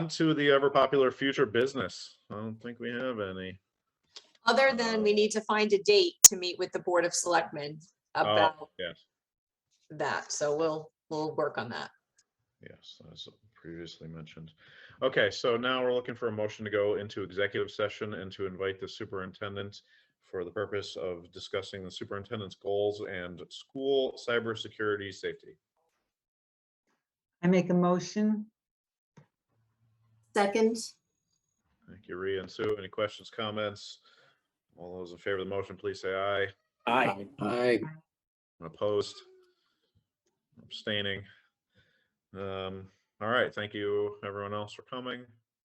to the ever popular future business. I don't think we have any. Other than we need to find a date to meet with the Board of Selectmen Oh, about Yes, that. So we'll, we'll work on that. yes, as previously mentioned. Okay, so now we're looking for a motion to go into executive session and to invite the superintendent for the purpose of discussing the superintendent's goals and school cybersecurity safety. I make a motion. Second, Thank you, Rhea and Sue. Any questions, comments? All those in favor of the motion, please say aye. Aye. Aye. Opposed? Abstaining? Um, All right, thank you, everyone else for coming.